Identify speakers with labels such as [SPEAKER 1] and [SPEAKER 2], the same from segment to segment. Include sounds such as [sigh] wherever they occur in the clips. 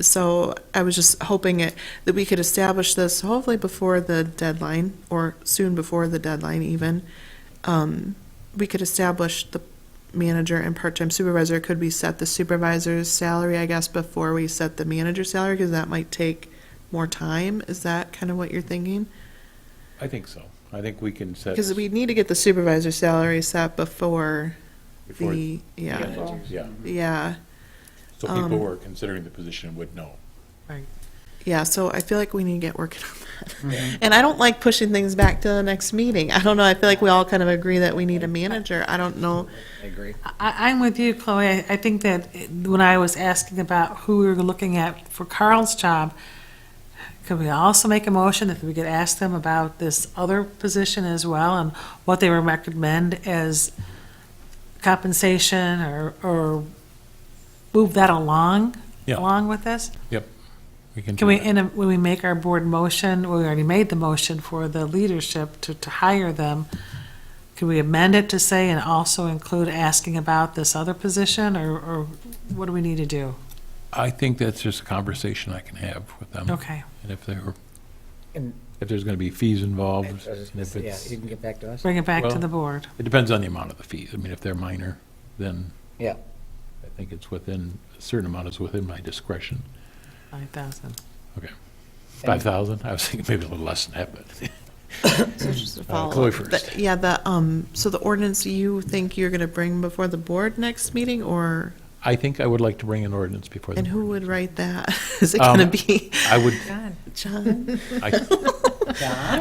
[SPEAKER 1] so I was just hoping it, that we could establish this hopefully before the deadline, or soon before the deadline even. Um, we could establish the manager and part-time supervisor. Could we set the supervisor's salary, I guess, before we set the manager's salary? Because that might take more time. Is that kind of what you're thinking?
[SPEAKER 2] I think so. I think we can set.
[SPEAKER 1] Because we need to get the supervisor's salary set before
[SPEAKER 2] before-
[SPEAKER 1] the, yeah,
[SPEAKER 2] Yeah,
[SPEAKER 1] yeah.
[SPEAKER 2] so people who are considering the position would know.
[SPEAKER 1] Yeah, so I feel like we need to get working on
[SPEAKER 2] Mm-hmm.
[SPEAKER 1] that. And I don't like pushing things back to the next meeting. I don't know, I feel like we all kind of agree that we need a manager. I don't know.
[SPEAKER 3] I agree.
[SPEAKER 4] I, I'm with you, Chloe. I, I think that it- when I was asking about who we were looking at for Carl's job, could we also make a motion that we could ask them about this other position as well and what they would recommend as compensation or, or move that along,
[SPEAKER 2] Yeah.
[SPEAKER 4] along with this?
[SPEAKER 2] We can.
[SPEAKER 4] Can we, in a, when we make our board motion, we already made the motion for the leadership to, to hire them. Can we amend it to say and also include asking about this other position or, or what do we need to do?
[SPEAKER 2] I think that's just a conversation I can have with them.
[SPEAKER 4] Okay.
[SPEAKER 2] And if there,
[SPEAKER 3] And-
[SPEAKER 2] if there's going to be fees
[SPEAKER 3] I was
[SPEAKER 2] involved,
[SPEAKER 3] just
[SPEAKER 2] and
[SPEAKER 3] gonna
[SPEAKER 2] if
[SPEAKER 3] say, Yeah,
[SPEAKER 2] it's,
[SPEAKER 3] you
[SPEAKER 2] it
[SPEAKER 3] can get back to us.
[SPEAKER 4] Bring it back to
[SPEAKER 2] Well-
[SPEAKER 4] the board.
[SPEAKER 2] depends on the amount of the fees. I mean, if they're minor, then
[SPEAKER 3] Yeah. [laughs]
[SPEAKER 2] I think it's within, a certain amount is within my discretion.
[SPEAKER 4] Five thousand.
[SPEAKER 2] Five thousand, I was thinking maybe a little less than that, but [laughs]
[SPEAKER 1] So just a
[SPEAKER 2] Uh, Chloe
[SPEAKER 1] follow-up.
[SPEAKER 2] first.
[SPEAKER 1] The- Yeah, the, um, so the ordinance you think you're gonna bring before the board next meeting, or,
[SPEAKER 2] I think I would like to bring an ordinance before. the
[SPEAKER 1] and who
[SPEAKER 2] board.
[SPEAKER 1] would write that? [laughs] Is it
[SPEAKER 2] Um,
[SPEAKER 1] gonna be
[SPEAKER 2] I would,
[SPEAKER 1] John?
[SPEAKER 2] I,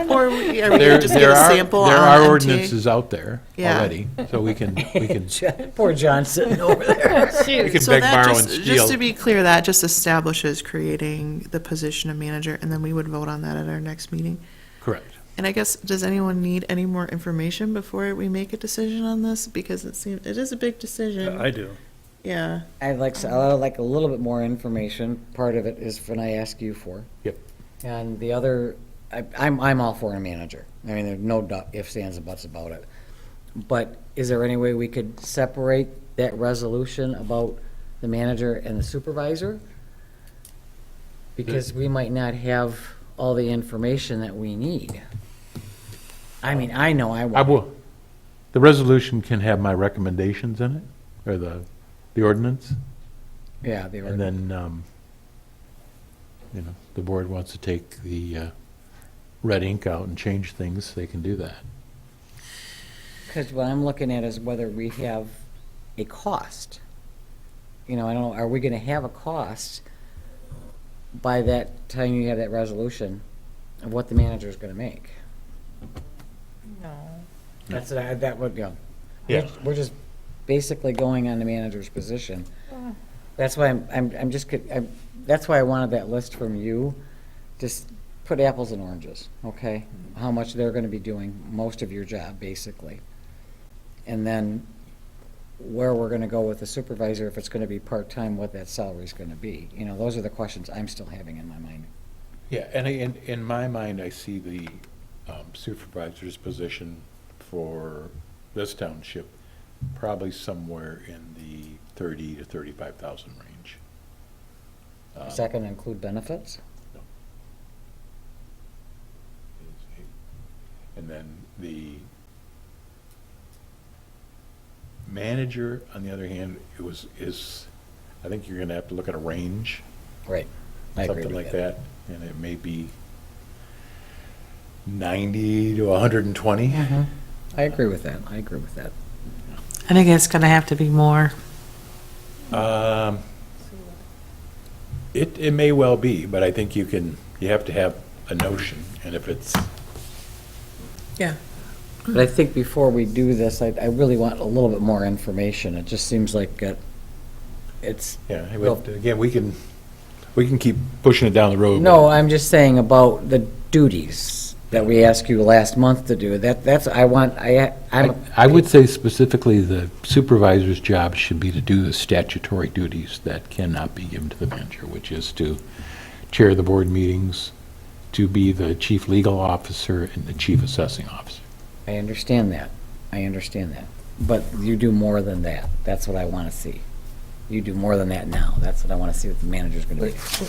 [SPEAKER 1] Or we- are we
[SPEAKER 2] There,
[SPEAKER 1] gonna just get
[SPEAKER 2] there
[SPEAKER 1] a
[SPEAKER 2] are,
[SPEAKER 1] sample on
[SPEAKER 2] there are
[SPEAKER 1] MTA?
[SPEAKER 2] ordinances out there
[SPEAKER 1] Yeah.
[SPEAKER 2] already, so we can, we can,
[SPEAKER 3] Poor John sitting over there.
[SPEAKER 2] we can
[SPEAKER 1] So
[SPEAKER 2] beg,
[SPEAKER 1] that
[SPEAKER 2] borrow,
[SPEAKER 1] just-
[SPEAKER 2] and
[SPEAKER 1] Just to
[SPEAKER 2] steal.
[SPEAKER 1] be clear, that just establishes creating the position of manager, and then we would vote on that at our next meeting.
[SPEAKER 2] Correct.
[SPEAKER 1] And I guess, does anyone need any more information before we make a decision on this? Because it seems, it is a big decision.
[SPEAKER 5] I do.
[SPEAKER 1] Yeah,
[SPEAKER 3] I'd like, to- I'd like a little bit more information. Part of it is when I ask you for.
[SPEAKER 2] Yep.
[SPEAKER 3] And the other, I, I'm, I'm all for a manager. I mean, there's no du- ifs, ands, and buts about it. But is there any way we could separate that resolution about the manager and the supervisor? Because we might not have all the information that we need. I mean, I know I
[SPEAKER 2] I
[SPEAKER 3] won't.
[SPEAKER 2] will, the resolution can have my recommendations in it, or the, the ordinance,
[SPEAKER 3] Yeah, they
[SPEAKER 2] and
[SPEAKER 3] were,
[SPEAKER 2] then, um, you know, the board wants to take the, uh, red ink out and change things, they can do that.
[SPEAKER 3] because what I'm looking at is whether we have a cost. You know, I don't know, are we gonna have a cost by that time you have that resolution of what the manager's gonna make? No. That's, I- that would, yeah.
[SPEAKER 2] Yeah.
[SPEAKER 3] We're just basically going on the manager's position. That's why I'm, I'm, I'm just, get- I'm, that's why I wanted that list from you. Just put apples and oranges, okay? How much they're gonna be doing most of your job, basically. And then where we're gonna go with the supervisor, if it's gonna be part-time, what that salary's gonna be. You know, those are the questions I'm still having in my mind.
[SPEAKER 2] Yeah, and I- in, in my mind, I see the um, supervisor's position for this township probably somewhere in the thirty to thirty-five thousand range. Um,
[SPEAKER 3] Is that gonna include benefits?
[SPEAKER 2] And then the manager, on the other hand, it was, is, I think you're gonna have to look at a range.
[SPEAKER 3] Right. I agree
[SPEAKER 2] something
[SPEAKER 3] with
[SPEAKER 2] like that, and it may be ninety to hundred and twenty.
[SPEAKER 3] Mm-hmm. I agree with that, I agree with that.
[SPEAKER 4] I think it's gonna have to be more.
[SPEAKER 2] Um, it, it may well be, but I think you can, you have to have a notion, and if it's,
[SPEAKER 3] But I think before we do this, I, I really want a little bit more information. It just seems like it, it's,
[SPEAKER 2] yeah, it
[SPEAKER 3] Well-
[SPEAKER 2] would- again, we can, we can keep pushing it down the road.
[SPEAKER 3] no, I'm just saying about the duties that we asked you last month to do. That, that's, I want, I,
[SPEAKER 2] I
[SPEAKER 3] I'm,
[SPEAKER 2] I would say specifically, the supervisor's job should be to do the statutory duties that cannot be given to the manager, which is to chair the board meetings, to be the chief legal officer and the chief assessing officer.
[SPEAKER 3] I understand that. I understand that. But you do more than that. That's what I want to see. You do more than that now. That's what I want to see what the manager's going to do.